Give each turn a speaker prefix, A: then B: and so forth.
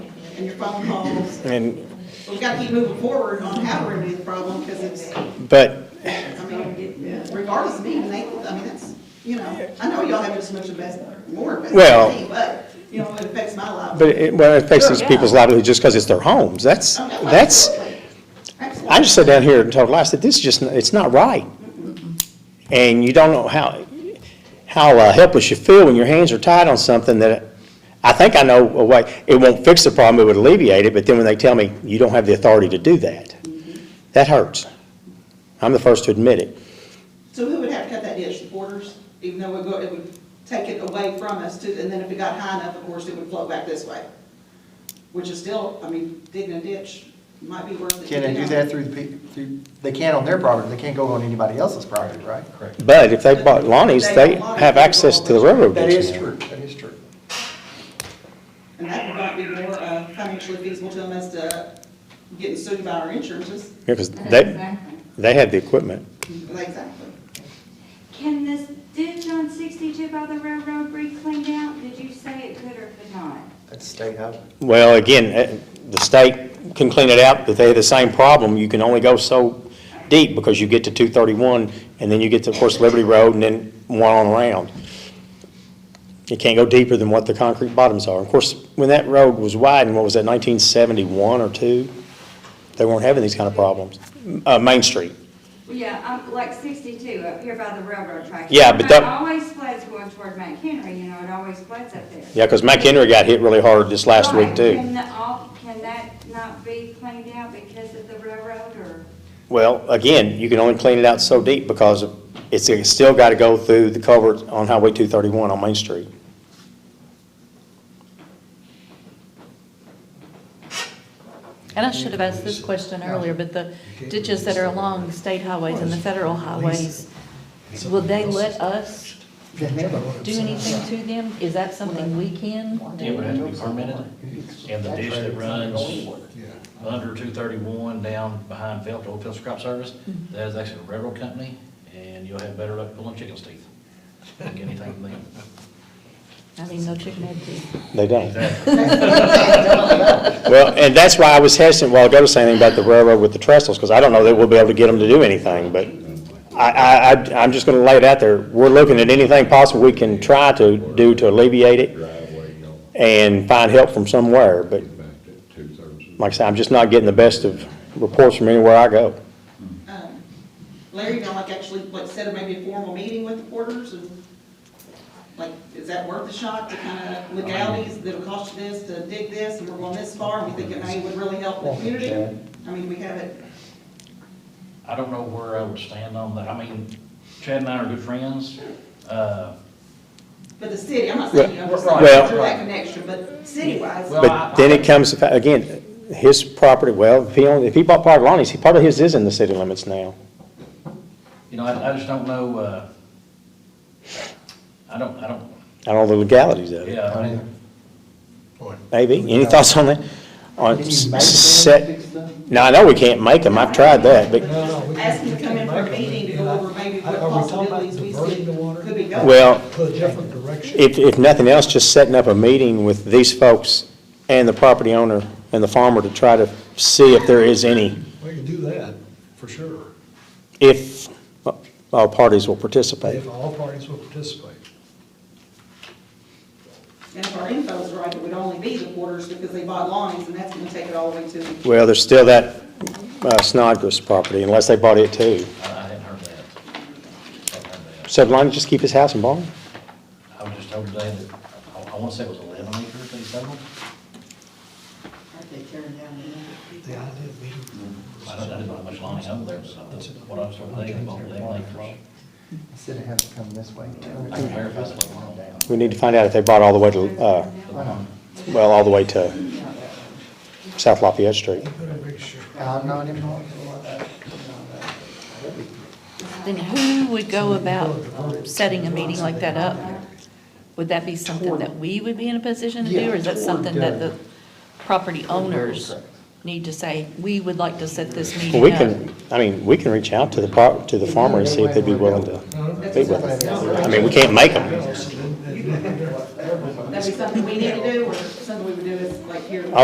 A: and your phone calls.
B: And,
A: We've got to keep moving forward on how to remedy the problem, because it's, I
B: but,
A: mean, regardless of being Nathan, I mean, that's, you know, I know y'all have just much of best, more best
B: Well-
A: than me, but, you know, it affects my life.
B: but it, well, it affects these people's livelihood just because it's their homes. That's,
A: Oh, no,
B: that's,
A: absolutely. Absolutely.
B: I just sat down here and told Lyle, I said, this is just, it's not right. And you don't know how, how uh, helpless you feel when your hands are tied on something that, I think I know a way, it won't fix the problem, it would alleviate it, but then when they tell me, you don't have the authority to do that, that hurts. I'm the first to admit it.
A: So who would have to cut that ditch, the porters, even though it would, it would take it away from us to, and then if it got high enough, of course, it would flow back this way. Which is still, I mean, digging a ditch might be worth it.
C: Can they do that through the, pe- through, they can on their property, they can't go on anybody else's property, right? Correct.
B: But if they bought Lonnie's, they have access to the railroad
C: That
B: ditch
C: is
B: now.
C: true, that is true.
A: And that might be more uh, financially feasible to them as to getting sued by our insurances,
B: Yeah, 'cause they,
D: Exactly.
B: they had the equipment.
A: exactly.
D: Can this ditch on sixty-two by the railroad be cleaned out? Did you say it could or could not?
C: That's state highway.
B: Well, again, eh, the state can clean it out, but they have the same problem. You can only go so deep because you get to 231, and then you get to, of course, Liberty Road, and then one on around. You can't go deeper than what the concrete bottoms are. Of course, when that road was widened, what was that, 1971 or 2? They weren't having these kind of problems. Uh, Main Street.
D: Yeah, um, like sixty-two up here by the railroad track.
B: Yeah, but that-
D: It always floods going toward McHenry, you know, it always floods up there.
B: Yeah, because McHenry got hit really hard this last week,
D: Right.
B: too.
D: Can the- all- can that not be cleaned out because of the railroad or?
B: Well, again, you can only clean it out so deep because it's, it's still got to go through the culvert on Highway 231 on Main Street.
E: And I should have asked this question earlier, but the ditches that are along the state highways and the federal highways, will they let us do anything to them? Is that something we can
F: It would
E: do?
F: have to be permitted, and the ditch that runs under two thirty-one down behind Felt, Old Field Scrap Service, that is actually a railroad company, and you'll have better luck pulling chicken's teeth than getting anything from them.
E: I mean, no chicken head teeth.
B: They don't.
F: Exactly.
B: Well, and that's why I was hesitant while ago to say anything about the railroad with the trestles, because I don't know that we'll be able to get them to do anything, but I, I, I- I'm just going to lay it out there. We're looking at anything possible we can try to do to alleviate it
G: driveway, you know,
B: and find help from somewhere, but
G: back to two thirds.
B: like I said, I'm just not getting the best of reports from anywhere I go.
A: Um, Larry, you know, like actually, like set up maybe a formal meeting with the porters and, like, is that worth a shot to kind of legalities that'll cost you this to dig this and we're going this far and we think it may would really help the community? I mean, we have it,
F: I don't know where I would stand on that, I mean, Chad and I are good friends, uh,
A: but the city, I'm not saying, you know, we're saying
B: Well-
A: we're lacking extra, but city-wise.
F: Well,
B: But then it comes, again, his property, well, if he only, if he bought part of Lonnie's, he- part of his is in the city limits now.
F: you know, I, I just don't know, uh, I don't, I don't,
B: I don't know the legalities of it.
F: yeah, I mean,
B: Maybe, any thoughts on that? On
C: Can you
B: s-
C: make them
B: set,
C: fix them?
B: no, I know we can't make them, I've tried that, but,
A: Ask them to come in for a meeting to go over maybe what
H: Are we talking about
A: possibilities we see
H: diverting the water?
A: could be going.
B: well,
H: To a different direction?
B: if, if nothing else, just setting up a meeting with these folks and the property owner and the farmer to try to see if there is any,
H: We can do that, for sure,
B: if uh, all parties will participate.
H: if all parties will participate.
A: And if our info is right, it would only be the porters because they bought lines and that's going to take it all the way to the
B: Well, there's still that uh, Snodgrass property, unless they bought it too.
F: I, I hadn't heard that. Hadn't heard that.
B: So did Lonnie just keep his house in Baldwin?
F: I was just told today that, I, I wanna say it was eleven acres, they sold.
H: The idea being,
F: I don't, I didn't know how much Lonnie owned there, but that's what I was told today, about eleven acres.
C: Instead of having to come this way.
F: I can verify that. one.
B: We need to find out if they bought all the way to, uh, well, all the way to South Lafayette Street.
H: put a big shirt.
C: I'm not involved.
E: Then who would go about setting a meeting like that up? Would that be something that we would be in a position to do, or is that something that the property owners need to say, we would like to set this meeting
B: Well,
E: up?
B: we can, I mean, we can reach out to the pro, to the farmer and see if they'd be willing to meet with us. I mean, we can't make them.
A: That'd be something we need to do, or something we would do is like here.